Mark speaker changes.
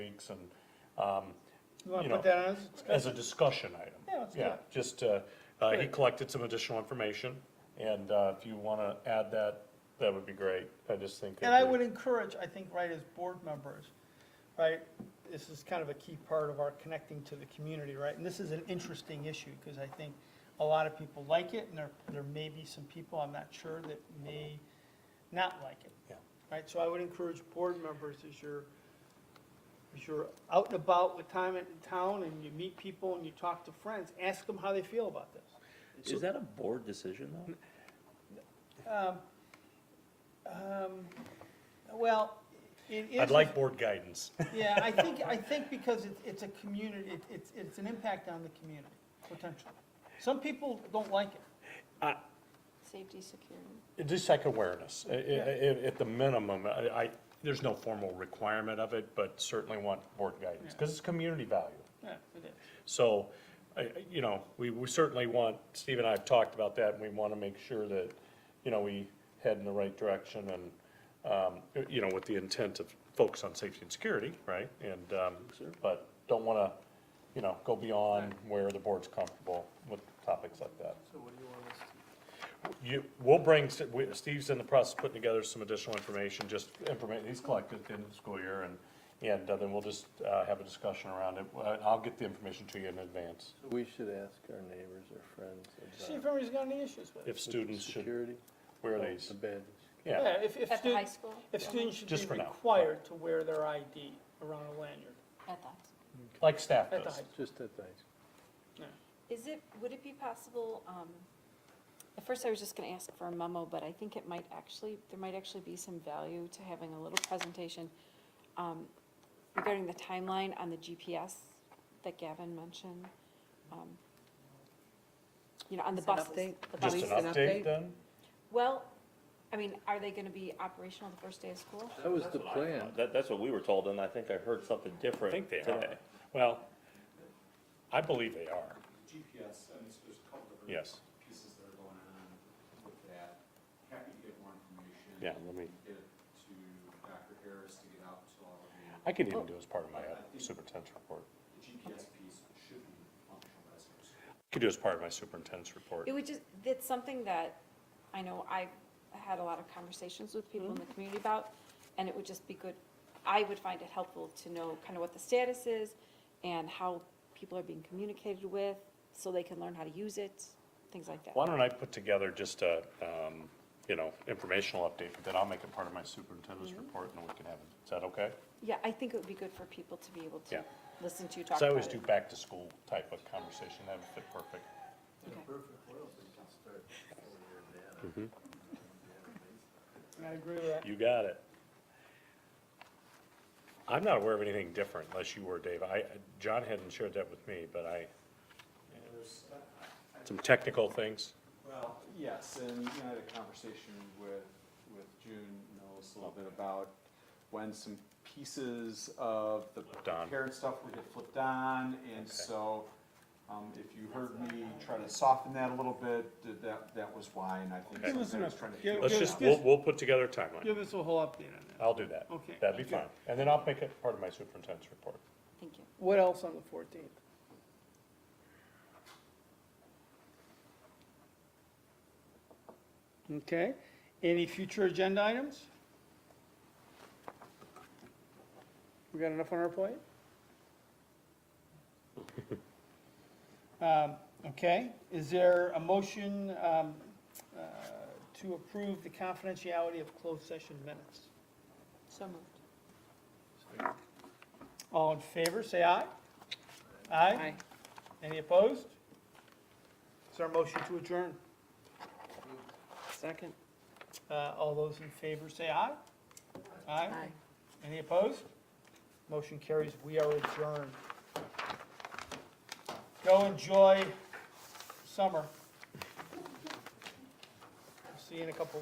Speaker 1: weeks and, um,
Speaker 2: You want
Speaker 1: you know,
Speaker 2: to put that on as a
Speaker 1: as a
Speaker 2: discussion?
Speaker 1: discussion item.
Speaker 2: Yeah, let's do
Speaker 1: Yeah,
Speaker 2: it.
Speaker 1: just, uh, uh, he
Speaker 2: Great.
Speaker 1: collected some additional information, and, uh, if you wanna add that, that would be great, I just think. it'd
Speaker 2: And I
Speaker 1: be-
Speaker 2: would encourage, I think, right, as board members, right, this is kind of a key part of our connecting to the community, right? And this is an interesting issue, because I think a lot of people like it, and there, there may be some people, I'm not sure, that may not like it.
Speaker 1: Yeah.
Speaker 2: Right, so I would encourage board members, as you're, as you're out and about with time in town, and you meet people, and you talk to friends, ask them how they feel about this.
Speaker 3: Is that a board decision though?
Speaker 2: Um, um, Well, it is.
Speaker 1: I'd like board guidance.
Speaker 2: Yeah, I think, I think because it's, it's a community, it- it's, it's an impact on the community, potentially. Some people don't like it.
Speaker 4: Safety, security.
Speaker 1: Just like awareness, I- I- I- at the minimum, I, I, there's no formal requirement of it, but certainly want board guidance, because it's community value.
Speaker 2: Yeah, it is.
Speaker 1: So, I, I- you know, we, we certainly want, Steve and I have talked about that, and we want to make sure that, you know, we head in the right direction and, um, you know, with the intent of focus on safety and security, right? And, um, but don't want to, you know, go beyond where the board's comfortable with topics like that. So what do you want us to? You, we'll bring, we- Steve's in the process of putting together some additional information, just information he's collected at the end of the school year, and, and uh, then we'll just, uh, have a discussion around it. Uh, I'll get the information to you in advance,
Speaker 5: We should ask our neighbors or friends
Speaker 2: See if
Speaker 5: about
Speaker 2: anybody's got any issues with it.
Speaker 1: if students should
Speaker 5: security.
Speaker 1: wear
Speaker 5: Oh,
Speaker 1: these,
Speaker 5: The badges.
Speaker 1: yeah.
Speaker 2: Yeah, if, if
Speaker 4: At the high
Speaker 2: students,
Speaker 4: school?
Speaker 2: if students should
Speaker 1: Just for
Speaker 2: be
Speaker 1: now.
Speaker 2: required to wear their ID around a lanyard
Speaker 4: At the high school.
Speaker 1: Like staff
Speaker 2: at the
Speaker 1: does.
Speaker 2: high school.
Speaker 5: Just at the high school.
Speaker 4: Is it, would it be possible, um, at first I was just gonna ask for a memo, but I think it might actually, there might actually be some value to having a little presentation um, regarding the timeline on the GPS that Gavin mentioned. um, You know, on the
Speaker 6: Just an
Speaker 4: buses.
Speaker 6: update?
Speaker 4: the
Speaker 1: Just
Speaker 4: buses.
Speaker 1: an
Speaker 6: Police and
Speaker 1: update
Speaker 6: update?
Speaker 1: then?
Speaker 4: Well, I mean, are they gonna be operational the first day of school?
Speaker 5: That was the plan.
Speaker 3: Uh, That, that's what we were told, and I think I heard something different
Speaker 1: think they
Speaker 3: today.
Speaker 1: are. Well, I believe they are,
Speaker 7: GPS, and it's, there's a couple different
Speaker 1: yes.
Speaker 7: pieces that are going on with that. Happy to get more information.
Speaker 1: Yeah, let me-
Speaker 7: Get it to Dr. Harris to get out to all of you.
Speaker 1: I could even do as part of my uh, superintendent's report.
Speaker 7: The GPS piece should be functional as of soon.
Speaker 1: Could do as part of my superintendent's report.
Speaker 4: It would just, it's something that I know I had a lot of conversations with people in
Speaker 1: Mm-hmm.
Speaker 4: the community about, and it would just be good, I would find it helpful to know kind of what the status is and how people are being communicated with, so they can learn how to use it, things like that.
Speaker 1: Why don't I put together just a, um, you know, informational update, but then I'll make it part of my superintendent's
Speaker 4: Mm-hmm.
Speaker 1: report, and then we can have it. Is that okay?
Speaker 4: Yeah, I think it would be good for people to be able to
Speaker 1: Yeah.
Speaker 4: listen to you talk
Speaker 1: Because I
Speaker 4: about
Speaker 1: always
Speaker 4: it.
Speaker 1: do back-to-school type of conversation, that would fit perfect.
Speaker 4: Okay.
Speaker 2: I agree with that.
Speaker 1: You got it. I'm not aware of anything different, unless you were, Dave. I, John hadn't shared that with me, but I,
Speaker 7: There's, uh,
Speaker 1: some technical things.
Speaker 7: Well, yes, and I had a conversation with, with June Mills a little bit about when some pieces of the
Speaker 1: Flipped on.
Speaker 7: parent stuff would get flipped on, and so, um, if you heard me try to soften that a little bit, that, that was why, and I think
Speaker 1: Okay.
Speaker 7: sometimes I was trying to.
Speaker 2: Give us an-
Speaker 7: feel
Speaker 1: Let's
Speaker 7: it
Speaker 1: just,
Speaker 7: out.
Speaker 1: we'll, we'll put together a timeline.
Speaker 2: Give us a whole update on that.
Speaker 1: I'll do that.
Speaker 2: Okay.
Speaker 1: Oh, That'd be fine. And then I'll make it part of my superintendent's report.
Speaker 4: Thank you.
Speaker 2: What else on the fourteenth? Okay, any future agenda items? We got enough on our plate? Um, okay, is there a motion, um, uh, to approve the confidentiality of closed session minutes?
Speaker 4: So moved.
Speaker 2: All in favor, say aye. Aye? Any opposed? Is there a motion to adjourn?
Speaker 6: Second?
Speaker 2: Uh, all those in favor, say aye. Aye? Any opposed? Motion carries, we are adjourned. Go enjoy summer. See you in a couple